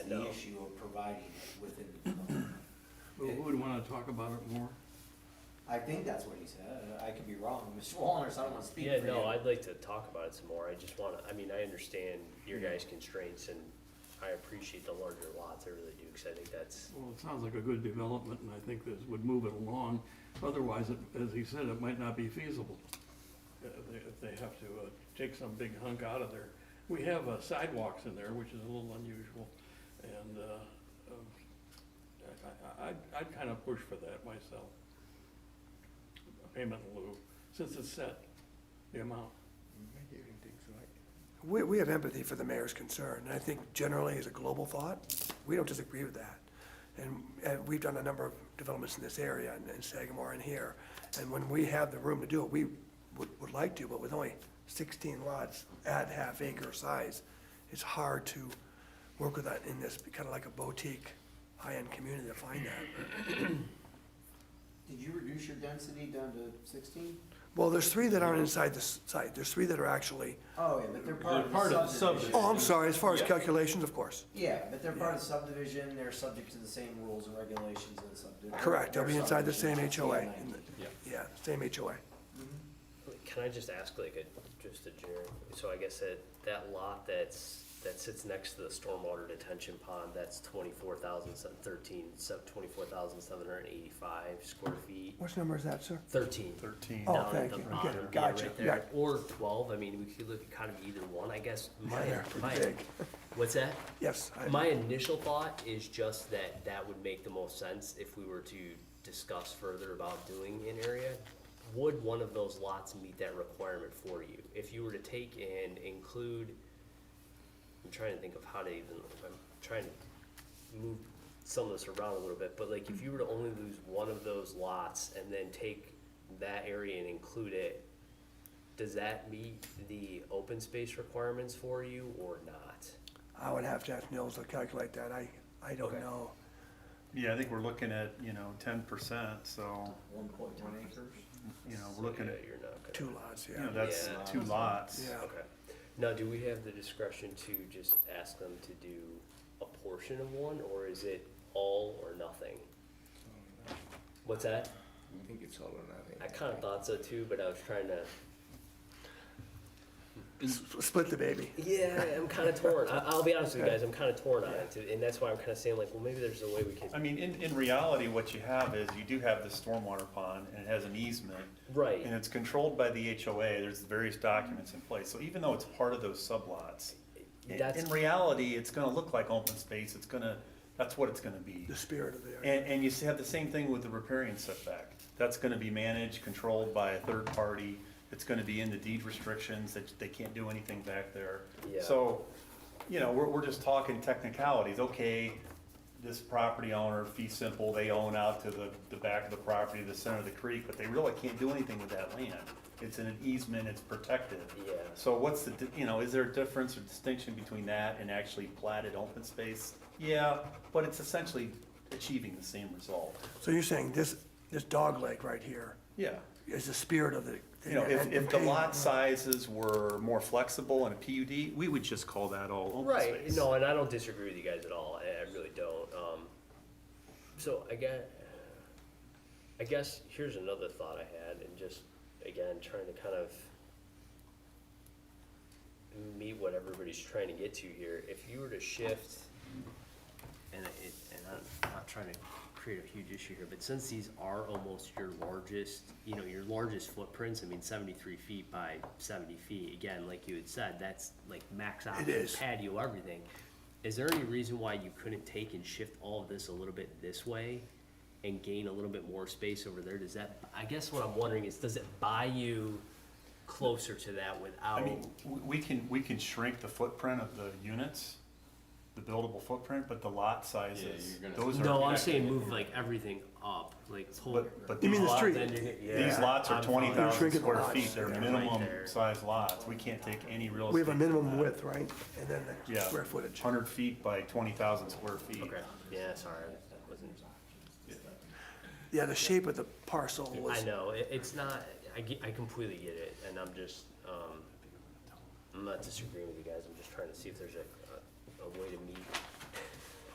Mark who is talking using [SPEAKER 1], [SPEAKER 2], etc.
[SPEAKER 1] the
[SPEAKER 2] No.
[SPEAKER 1] issue of providing it within the development.
[SPEAKER 3] Who who would wanna talk about it more?
[SPEAKER 1] I think that's what he said, I could be wrong, Mr. Wallner, so I don't wanna speak for
[SPEAKER 2] Yeah,
[SPEAKER 1] you.
[SPEAKER 2] no, I'd like to talk about it some more, I just wanna, I mean, I understand your guys' constraints and I appreciate the larger lots, I really do, cause I think that's,
[SPEAKER 3] Well, it sounds like a good development, and I think this would move it along. Otherwise, it- as he said, it might not be feasible. uh, they- If they have to uh, take some big hunk out of there. We have uh, sidewalks in there, which is a little unusual, and uh, um, I- I- I'd, I'd kind of push for that myself. A Payment in lieu, since it's set, the amount.
[SPEAKER 4] We, we have empathy for the mayor's concern, and I think generally as a global thought, we don't disagree with that. And, and we've done a number of developments in this area, and in Sagamore and here, and when we have the room to do it, we would, would like to, but with only sixteen lots at half acre size, it's hard to work with that in this, kind of like a boutique, high-end community to find that.
[SPEAKER 1] Did you reduce your density down to sixteen?
[SPEAKER 4] Well, there's three that aren't inside this site, there's three that are actually,
[SPEAKER 1] Oh, yeah, but they're
[SPEAKER 5] They're
[SPEAKER 1] part of
[SPEAKER 5] part
[SPEAKER 1] the
[SPEAKER 5] of the
[SPEAKER 1] subdivision.
[SPEAKER 4] oh, I'm sorry, as far as
[SPEAKER 5] Yeah.
[SPEAKER 4] calculations, of course.
[SPEAKER 1] Yeah, but they're part of subdivision, they're subject to the same rules and regulations as subdivision.
[SPEAKER 4] Correct, they'll be inside the same HOA, in the-
[SPEAKER 5] Yeah.
[SPEAKER 4] yeah, same HOA.
[SPEAKER 2] can I just ask like a, just a generic, so I guess that, that lot that's, that sits next to the stormwater detention pond, that's twenty-four thousand, thirteen, sub, twenty-four thousand, seven hundred and eighty-five square feet,
[SPEAKER 4] What number is that, sir?
[SPEAKER 2] thirteen.
[SPEAKER 5] Thirteen.
[SPEAKER 4] Oh,
[SPEAKER 2] down at
[SPEAKER 4] thank
[SPEAKER 2] the
[SPEAKER 4] you. Okay,
[SPEAKER 2] bottom, yeah,
[SPEAKER 4] gotcha,
[SPEAKER 2] right there.
[SPEAKER 4] yeah.
[SPEAKER 2] Or twelve, I mean, we could look at kind of either one, I guess, my,
[SPEAKER 4] they're pretty
[SPEAKER 2] my,
[SPEAKER 4] big.
[SPEAKER 2] what's that?
[SPEAKER 4] Yes, I-
[SPEAKER 2] My initial thought is just that that would make the most sense if we were to discuss further about doing an area. Would one of those lots meet that requirement for you? If you were to take and include, I'm trying to think of how to even, I'm trying to move some of this around a little bit, but like if you were to only lose one of those lots and then take that area and include it, does that meet the open space requirements for you or not?
[SPEAKER 4] I would have to ask Nils to calculate that, I, I don't
[SPEAKER 2] Okay.
[SPEAKER 4] know.
[SPEAKER 5] Yeah, I think we're looking at, you know, ten percent, so,
[SPEAKER 1] One point one acres.
[SPEAKER 5] you know,
[SPEAKER 2] So,
[SPEAKER 5] we're looking
[SPEAKER 2] yeah,
[SPEAKER 5] at,
[SPEAKER 2] You're not gonna.
[SPEAKER 4] Two lots,
[SPEAKER 5] you know,
[SPEAKER 4] yeah.
[SPEAKER 5] that's
[SPEAKER 2] Yeah.
[SPEAKER 5] two lots.
[SPEAKER 4] Yeah.
[SPEAKER 2] Okay. Now, do we have the discretion to just ask them to do a portion of one, or is it all or nothing? What's that?
[SPEAKER 6] I think it's all or nothing.
[SPEAKER 2] I kinda thought so too, but I was trying to,
[SPEAKER 4] S- Split the baby.
[SPEAKER 2] yeah, I'm kinda torn. I, I'll be honest with you guys, I'm kinda torn on it, too, and that's why I'm kinda saying like, well, maybe there's a way we can.
[SPEAKER 5] I mean, in, in reality, what you have is you do have this stormwater pond and it has an easement
[SPEAKER 2] Right,
[SPEAKER 5] and it's controlled by the HOA. There's various documents in place. So even though it's part of those sublots, i-
[SPEAKER 2] that's,
[SPEAKER 5] in reality, it's gonna look like open space. It's gonna, that's what it's gonna be.
[SPEAKER 4] The spirit of the area.
[SPEAKER 5] And, and you have the same thing with the riparian setback. That's gonna be managed, controlled by a third party. It's gonna be in the deed restrictions, that they can't do anything back there.
[SPEAKER 2] Yeah.
[SPEAKER 5] So, you know, we're, we're just talking technicalities. Okay, this property owner, fee simple, they own out to the, the back of the property, the center of the creek, but they really can't do anything with that land. It's in an easement, it's protected.
[SPEAKER 2] yeah,
[SPEAKER 5] So what's the, di- you know, is there a difference or distinction between that and actually platted open space? Yeah, but it's essentially achieving the same result.
[SPEAKER 4] So you're saying this, this dog leg right here
[SPEAKER 5] Yeah.
[SPEAKER 4] is the spirit of the.
[SPEAKER 5] You know, if,
[SPEAKER 4] and-
[SPEAKER 5] if the
[SPEAKER 4] and-
[SPEAKER 5] lot sizes were more flexible in a PUD, we would just call that all open
[SPEAKER 2] right,
[SPEAKER 5] space.
[SPEAKER 2] no, and I don't disagree with you guys at all, I, I really don't, um, so I guess, I guess here's another thought I had, and just again trying to kind of meet what everybody's trying to get to here. If you were to shift, and it, and I'm not trying to create a huge issue here, but since these are almost your largest, you know, your largest footprints, I mean, seventy-three feet by seventy feet, again, like you had said, that's like max out
[SPEAKER 4] is.
[SPEAKER 2] patio, everything. Is there any reason why you couldn't take and shift all of this a little bit this way? and gain a little bit more space over there, does that, I guess what I'm wondering is, does it buy you closer to that
[SPEAKER 5] I
[SPEAKER 2] without?
[SPEAKER 5] mean, w- we can, we can shrink the footprint of the units, the buildable footprint, but the lot sizes,
[SPEAKER 6] you're gonna-
[SPEAKER 5] those are.
[SPEAKER 2] No, I'm saying move like everything up, like whole.
[SPEAKER 5] But, but
[SPEAKER 4] You
[SPEAKER 5] these
[SPEAKER 4] mean the
[SPEAKER 5] lots,
[SPEAKER 4] street?
[SPEAKER 5] these lots are twenty thousand
[SPEAKER 4] Shrinking the
[SPEAKER 5] square
[SPEAKER 4] lots,
[SPEAKER 5] feet, they're
[SPEAKER 4] yeah.
[SPEAKER 5] minimum
[SPEAKER 2] Right there.
[SPEAKER 5] size lots, we can't take any real estate.
[SPEAKER 4] We have a
[SPEAKER 5] from
[SPEAKER 4] minimum
[SPEAKER 5] that.
[SPEAKER 4] width, right? And then the
[SPEAKER 5] Yeah.
[SPEAKER 4] square footage.
[SPEAKER 5] Hundred feet by twenty thousand square feet.
[SPEAKER 2] Okay, yeah, sorry, that wasn't,
[SPEAKER 4] Yeah, the shape of the parcel
[SPEAKER 2] I
[SPEAKER 4] was,
[SPEAKER 2] know, it, it's not, I ge- I completely get it, and I'm just, um, I'm not disagreeing with you guys, I'm just trying to see if there's a, a- a way to meet